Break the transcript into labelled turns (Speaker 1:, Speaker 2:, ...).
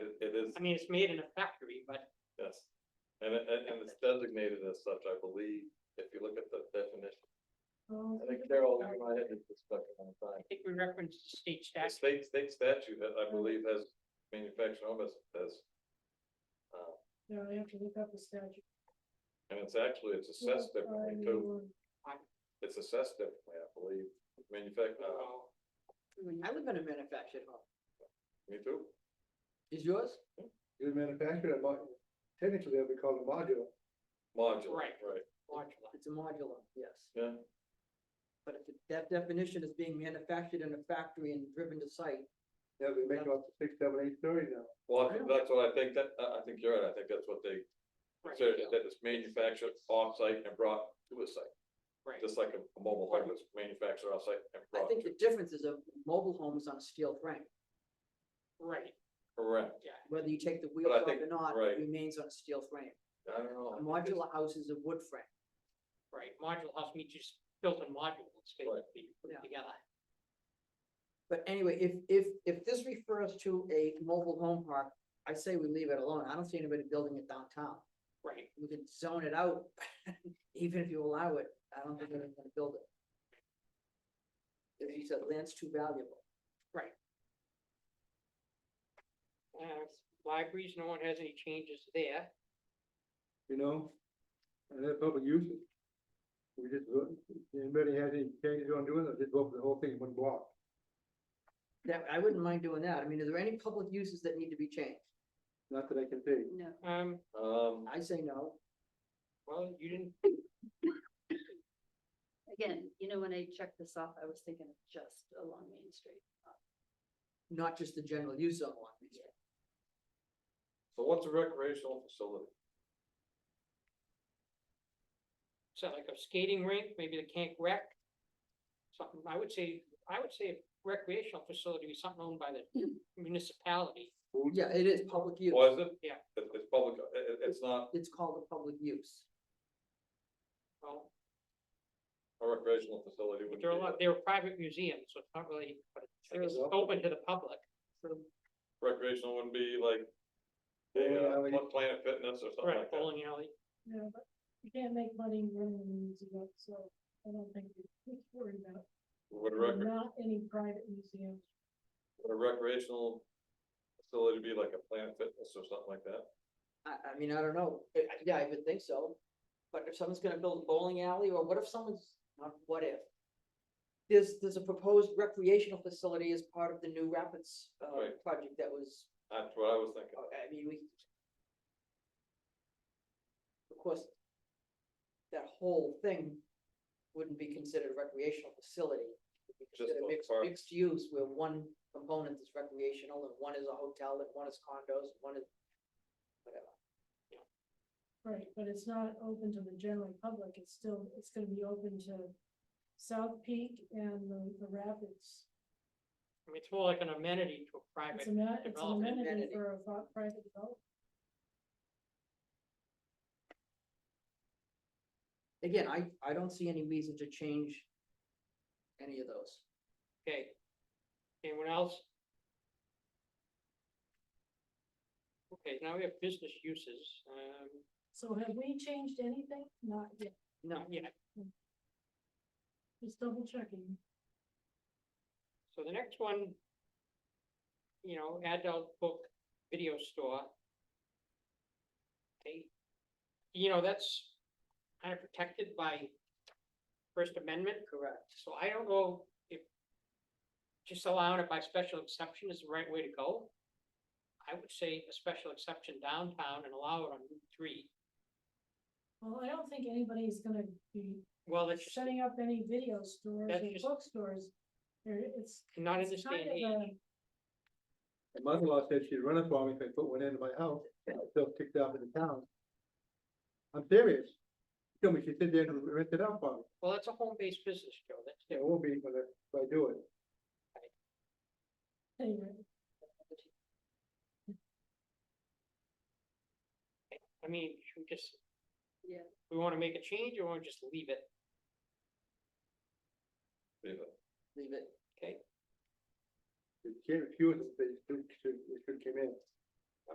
Speaker 1: I mean, it's made in a factory, but
Speaker 2: Yes, and, it- and, and it's designated as such, I believe, if you look at the definition.
Speaker 3: Oh,
Speaker 2: I think Carol, you might have this discussion on the
Speaker 1: I
Speaker 2: time.
Speaker 1: think we referenced the state
Speaker 2: The
Speaker 1: statute.
Speaker 2: state, state statute that I believe has manufactured home as, as. uh,
Speaker 3: No, I have to look up the statute.
Speaker 2: And it's actually, it's assessed differently too,
Speaker 3: I-
Speaker 2: it's assessed differently, I believe, manufactured, uh,
Speaker 4: I live in a manufactured home.
Speaker 2: me too.
Speaker 4: Is yours?
Speaker 5: It was manufactured at, Mo- technically, it would be called a modular.
Speaker 2: Modular, right,
Speaker 1: Right. Modular.
Speaker 4: It's a modular, yes.
Speaker 2: yeah,
Speaker 4: But if it- that definition is being manufactured in a factory and driven to site,
Speaker 5: Yeah, they make up to six, seven, eight stories now.
Speaker 2: well, I
Speaker 4: Yeah.
Speaker 2: think that's what I think, that, I, I think you're right, I think that's what they
Speaker 1: Right.
Speaker 2: consider, that it's manufactured off-site and brought to a site.
Speaker 1: Right.
Speaker 2: Just like a a mobile home is manufactured off-site and
Speaker 4: I
Speaker 2: brought
Speaker 4: think
Speaker 2: to,
Speaker 4: the difference is a mobile home is on a steel frame.
Speaker 1: Right,
Speaker 2: correct,
Speaker 4: Whether you take the wheels
Speaker 2: I
Speaker 4: off
Speaker 2: think-
Speaker 4: or not,
Speaker 2: right. Oh,
Speaker 4: it remains on a steel frame.
Speaker 2: I don't know.
Speaker 4: A modular house is a wood frame.
Speaker 1: right. Modular house means just built in modules,
Speaker 2: Right.
Speaker 1: basically, you put
Speaker 4: Yeah.
Speaker 1: it together.
Speaker 4: But anyway, if, if, if this refers to a mobile home park, I say we leave it alone. I don't see anybody building it downtown.
Speaker 1: Right,
Speaker 4: We can zone it out, even if you allow it, I don't think anyone's gonna build it. If you said land's too valuable,
Speaker 1: uh, libraries, no one has any changes there.
Speaker 5: you know? And they're public uses. We just, vote- anybody has any changes on doing it, just vote for the whole thing in one block.
Speaker 4: that, I wouldn't mind doing that, I mean, are there any public uses that need to be changed?
Speaker 5: Not that I can see.
Speaker 3: No.
Speaker 1: Um,
Speaker 2: Um,
Speaker 4: I say no,
Speaker 1: well, you didn't,
Speaker 3: Again, you know, when I checked this off, I was thinking of just along Main Street.
Speaker 4: not just the general use of one.
Speaker 2: so what's a recreational facility?
Speaker 1: so like a skating rink, maybe the can't rec. Something, I would say, I would say recreational facility is something owned by the municipality.
Speaker 4: Yeah, it is public use,
Speaker 2: Or is it?
Speaker 1: Yeah.
Speaker 2: It, it's public, it, it- it's not
Speaker 4: it's called a public use.
Speaker 1: Well,
Speaker 2: a recreational facility.
Speaker 1: but
Speaker 2: would
Speaker 1: they're
Speaker 2: be
Speaker 1: a lot, they're private museums, so it's not really, but it's-
Speaker 4: True.
Speaker 1: it's open to the public.
Speaker 2: Recreational wouldn't be like, yeah,
Speaker 5: Yeah, like-
Speaker 2: Planet Fitness or something
Speaker 1: Right,
Speaker 2: like that.
Speaker 1: bowling alley.
Speaker 3: Yeah, but you can't make money running the museum, so I don't think we should worry about.
Speaker 2: Would a rec,
Speaker 3: Not any private museums.
Speaker 2: would a recreational facility be like a Planet Fitness or something like that?
Speaker 4: I, I mean, I don't know, I- I- yeah, I would think so, but if someone's gonna build a bowling alley, or what if someone's, not what if? There's, there's a proposed recreational facility as part of the new Rapids, uh,
Speaker 2: Right.
Speaker 4: project that was,
Speaker 2: That's what I was thinking.
Speaker 4: uh, I mean, we. Of course, that whole thing wouldn't be considered a recreational facility. It would
Speaker 2: Just
Speaker 4: be considered
Speaker 2: a
Speaker 4: mixed,
Speaker 2: park.
Speaker 4: mixed use, where one component is recreational, and one is a hotel, and one is condos, and one is whatever.
Speaker 3: Right, but it's not open to the general public, it's still, it's gonna be open to South Peak and the the Rapids.
Speaker 1: I mean, it's more like an amenity to a
Speaker 3: It's
Speaker 1: private,
Speaker 3: a, ma- it's an
Speaker 1: development
Speaker 3: amenity
Speaker 4: amenity.
Speaker 3: for a fi- private development.
Speaker 4: again, I, I don't see any reason to change any of those.
Speaker 1: okay. Anyone else? Okay, now we have business uses, um,
Speaker 3: So have we changed anything? Not yet,
Speaker 4: No,
Speaker 1: yeah,
Speaker 3: just double checking.
Speaker 1: so the next one. You know, adult book video store. They, you know, that's kind of protected by First Amendment.
Speaker 4: correct.
Speaker 1: So I don't know if just allowing it by special exception is the right way to go. I would say a special exception downtown and allow it on Route three.
Speaker 3: Well, I don't think anybody's gonna be
Speaker 1: Well, it's just
Speaker 3: setting up any video stores
Speaker 1: That's
Speaker 3: or
Speaker 1: just-
Speaker 3: bookstores. There, it's.
Speaker 1: not in
Speaker 3: it's
Speaker 1: this day
Speaker 3: kind
Speaker 1: and
Speaker 3: of
Speaker 1: age.
Speaker 3: a-
Speaker 5: My mother-in-law said she'd run it for me if I put one into my house, I still kicked out of the town. I'm serious. She told me she said they'd rent it out for me.
Speaker 1: Well, that's a home-based business, Joe. That's
Speaker 5: Yeah,
Speaker 1: different.
Speaker 5: It won't be, but if I do it.
Speaker 3: Anyway,
Speaker 1: I mean, should we just.
Speaker 3: Yeah.
Speaker 1: We wanna make a change or wanna just leave it,
Speaker 2: Leave it.
Speaker 4: Leave it.
Speaker 1: okay?
Speaker 5: She refused it, they should, should, it should come in.